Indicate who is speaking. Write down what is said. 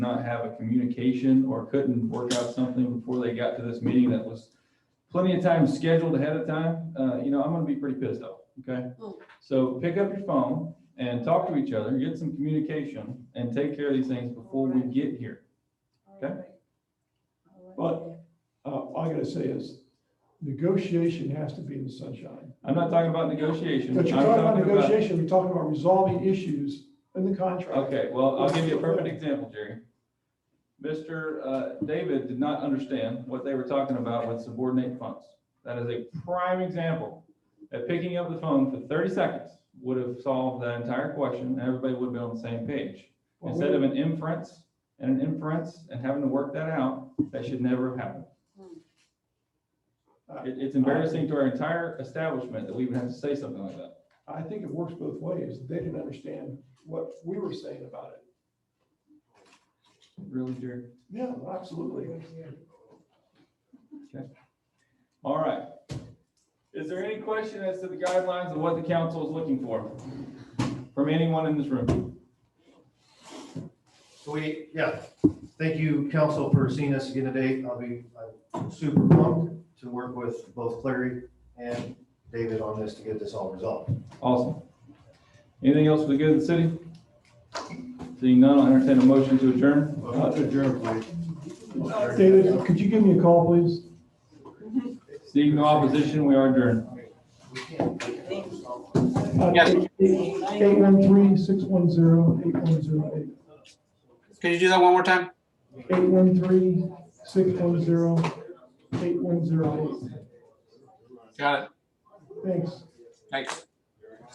Speaker 1: have a communication or couldn't work out something before they got to this meeting that was plenty of time scheduled ahead of time, uh, you know, I'm gonna be pretty pissed off, okay?
Speaker 2: Oh.
Speaker 1: So pick up your phone and talk to each other, get some communication and take care of these things before we get here. Okay.
Speaker 2: All
Speaker 3: Uh, all I gotta say is negotiation has to be in the sunshine.
Speaker 1: I'm not talking about negotiation.
Speaker 3: But you're
Speaker 1: I'm
Speaker 3: talking about negotiation, we're talking about resolving issues in the contract.
Speaker 1: Okay, well, I'll give you a perfect example, Jerry. Mr. uh, David did not understand what they were talking about with subordinate funds. That is a prime example that picking up the phone for thirty seconds would have solved that entire question, and everybody would be on the same page.
Speaker 3: Well,
Speaker 1: Instead of an inference and an inference and having to work that out, that should never have happened. It- It's embarrassing to our entire establishment that we would have to say something like that.
Speaker 3: I think it works both ways. They didn't understand what we were saying about it.
Speaker 1: Really, Jerry?
Speaker 3: Yeah, absolutely.
Speaker 1: All right. Is there any question as to the guidelines of what the council is looking for from anyone in this room?
Speaker 4: So we, yeah, thank you, council, for seeing us again today. I'll be, I'm super pumped to work with both Clary and David on this to get this all resolved.
Speaker 1: Awesome. Anything else for the good of the city? Seeing none, I'll entertain a motion to adjourn.
Speaker 4: Not to adjourn, please.
Speaker 3: David, could you give me a call, please?
Speaker 1: Seeing no opposition, we are adjourned.
Speaker 3: Yes. Eight one three, six one zero, eight one zero eight.
Speaker 5: Can you do that one more time?
Speaker 3: Eight one three, six one zero, eight one zero eight.
Speaker 5: Got it.
Speaker 3: Thanks.
Speaker 5: Thanks.